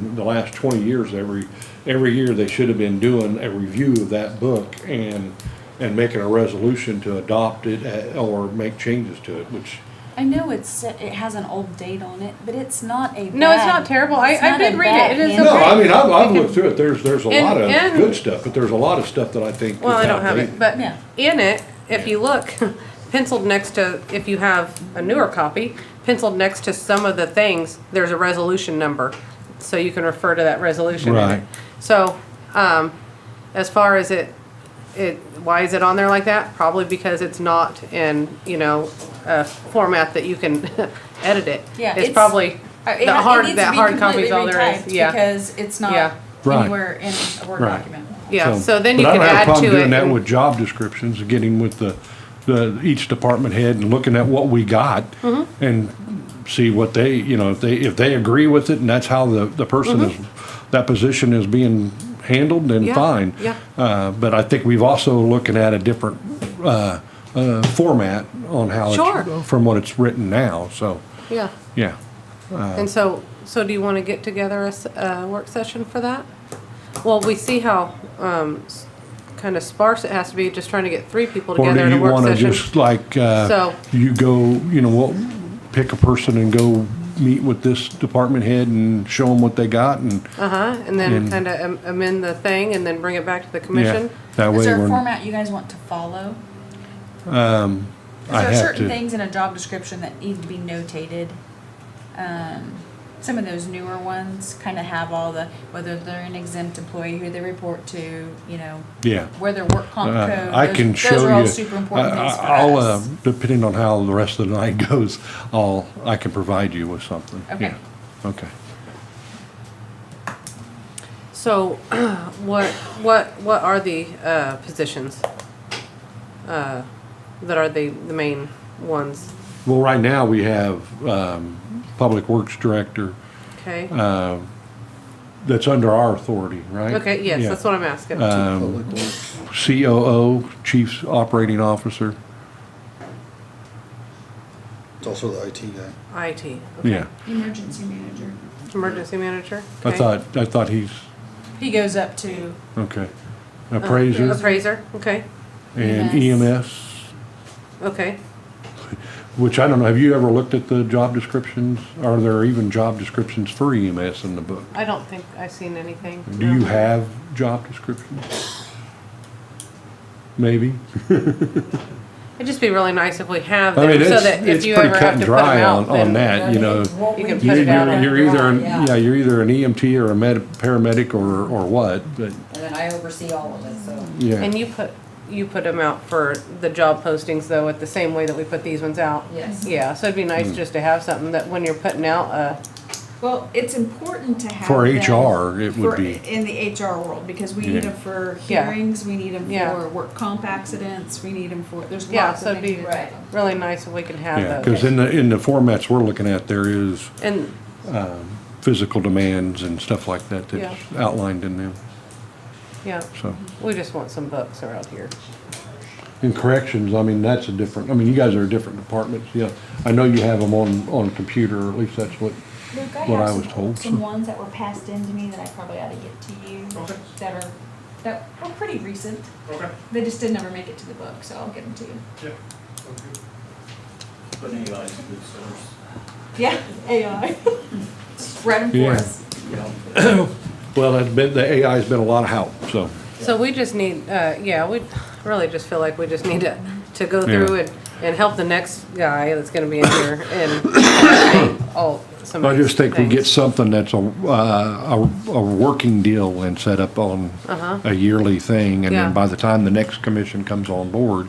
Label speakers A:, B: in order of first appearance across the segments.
A: In the last twenty years, every, every year, they should have been doing a review of that book and, and making a resolution to adopt it eh, or make changes to it, which,
B: I know it's it has an old date on it, but it's not a.
C: No, it's
B: bad-
C: not terrible. I-
B: it's
C: I
B: not
C: did
B: a
C: read it.
B: bad
C: It is a
B: handbook.
A: no, I mean, I've, I've looked through it, there's, there's a
C: And-
A: lot of
C: and-
A: good stuff, but there's a lot of stuff that I think.
C: Well, I
A: is
C: don't have it,
A: outdated.
C: but
B: Yeah.
C: in it, if you look, penciled next to, if you have a newer copy, penciled next to some of the things, there's a resolution number, so you can refer to that resolution. in it.
A: Right.
C: So, um, as far as it, it, why is it on there like that? Probably because it's not in, you know, a format that you can edit it.
B: Yeah,
C: It's
B: it's-
C: probably,
B: Uh, it-
C: the hard,
B: it needs to
C: that
B: be
C: hard copy is
B: completely
C: all there is,
B: retyped
C: yeah.
B: Because it's
C: Yeah.
B: not
A: Right.
B: anywhere in a Word
A: Right.
B: document.
C: Yeah, so then you
A: but I
C: can
A: don't have a
C: add
A: problem
C: to it.
A: Doing that
C: and-
A: with job descriptions, getting with the, the, each department head and looking at what we got.
C: Mm-hmm.
A: And see what they, you know, if they, if they agree with it and that's how the, the person is, that position is being handled, then
C: Mm-hmm. Yeah,
A: fine.
C: yeah.
A: Uh, but I think we've also looking at a different, uh, uh, format on how
C: Sure.
A: it's, from what it's written now, so,
C: Yeah.
A: yeah.
C: And
A: Uh,
C: so, so do you want to get together a, s- a work session for that? Well, we see how, um, kind of sparse it has to be, just trying to get three people
A: Or
C: together
A: do
C: in a
A: you
C: work
A: wanna
C: session.
A: just like, uh,
C: So-
A: you go, you know, what, pick a person and go meet with this department head and show them what they got and,
C: Uh-huh, and then kind of amend the thing and then bring it back to the
A: yeah.
C: commission?
A: That
B: Is
A: way
B: there a
A: we're,
B: format you guys want to follow? Is
A: I
B: there
A: have
B: certain
A: to.
B: things in a job description that need to be notated? Um, some of those newer ones kind of have all the, whether they're an exempt employee, who they report to, you know,
A: Yeah.
B: where their work comp
A: Uh,
B: code.
A: I
B: Oh, those-
A: can show you.
B: Those are all super important
A: I-
B: things for
A: I- I'll, uh,
B: us.
A: Depending on how the rest of the night goes, I'll, I can provide you with something.
B: Okay.
A: Yeah. Okay.
C: So what, what, what are the, uh, positions? Uh, that are the, the main ones,
A: Well, right now we have, um, Public Works Director,
C: okay?
A: uh, that's under our authority, right?
C: Okay, yes,
A: Yeah.
C: that's what I'm asking.
A: Um, COO, Chief Operating Officer.
D: It's also the IT guy.
C: IT, okay.
A: Yeah,
B: Emergency manager.
C: Emergency manager?
A: I
C: okay.
A: thought, I thought he's,
B: He goes up to,
A: okay.
C: Uh,
A: Appraiser
C: Appraiser, okay,
A: and E EMS,
C: okay.
A: which I don't know, have you ever looked at the job descriptions? Are there even job descriptions for EMS in the book?
C: I don't think I've seen anything.
A: Do you have job descriptions? Maybe?
C: It'd just be really nice if we have
A: I
C: them,
A: mean,
C: so
A: it's,
C: that if
A: it's
C: you
A: pretty
C: ever
A: cut
C: have
A: and
C: to put them
A: dry on,
C: out,
A: on
C: then.
A: that, you know.
C: you can
A: You-
C: put it out
A: You're
C: on-
A: you're either, an-
E: Yeah.
A: yeah, you're either an EMT or a med, paramedic or, or what, but,
E: And then I oversee all of it, so.
A: yeah.
C: And you put, you put them out for the job postings though, at the same way that we put these ones out?
E: Yes.
C: Yeah, so it'd be
A: Mm.
C: nice just to have something that when you're putting out, uh,
F: Well, it's important to have.
A: For
F: them
A: HR, it would
F: for-
A: be.
F: In the HR world, because we
A: Yeah.
F: need them for
C: Yeah.
F: hearings, we need them
C: Yeah.
F: for work comp accidents, we need them for, there's
C: Yeah,
F: lots
C: so
F: of
C: it'd
F: things.
C: be-
F: to-
E: Right.
C: really nice if we could
A: Yeah,
C: have
A: because
C: those.
A: in the, in the formats we're looking at, there is
C: And,
A: physical demands and stuff like that that's outlined in them,
C: yeah,
A: so.
C: we just want some books around here.
A: Mm-hmm. And corrections, I mean, that's a different, I mean, you guys are different departments, yeah. I know you have them on, on computer, or at least that's what,
G: Luke, I
A: what
G: have
A: I was
G: some-
A: told, so.
G: Some ones that were passed in to me that I probably ought to get to you, that are, that were pretty recent.
H: Okay,
G: They just didn't ever make it to the book, so I'll get them to you.
H: yeah. But anybody's a good source.
G: Yeah, AI.
F: Read them for
A: Yeah.
F: us.
A: Well, that's been, the AI's been a lot of help, so.
C: So we just need, uh, yeah, we really just feel like we just need to, to go
A: Yeah.
C: through and, and help the next guy that's gonna be in here and all some of
A: I just think we
C: these
A: get
C: things.
A: something that's a, uh, a, a working deal and set up on a yearly thing, and
C: Uh-huh. Yeah.
A: then by the time the next commission comes on board,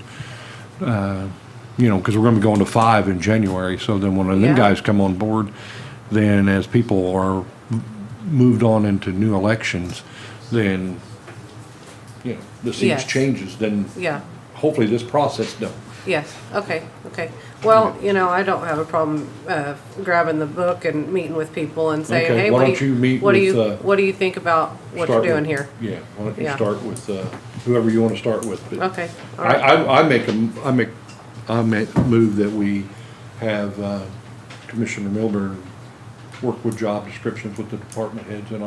A: uh, you know, because we're gonna be going to five in January, so then when them
C: Yeah.
A: guys come on board, then as people are m- moved on into new elections, then, you know, the seats
C: Yes.
A: changes, then
C: Yeah.
A: hopefully this process don't.
C: Yes, okay, okay. Well, you know, I don't have a problem uh, grabbing the book and meeting with people and saying,
A: Okay,
C: hey,
A: why
C: what
A: don't
C: do
A: you
C: you,
A: meet
C: what do
A: with, uh,
C: you, what do you think about what you're
A: Start
C: doing
A: with-
C: here?
A: Yeah, why don't you
C: Yeah.
A: start with, uh, whoever you wanna start with, but.
C: Okay, all
A: I,
C: right,
A: I, I make a, m- I make, I make move that we have uh, Commissioner Milburn work with job descriptions with the department heads and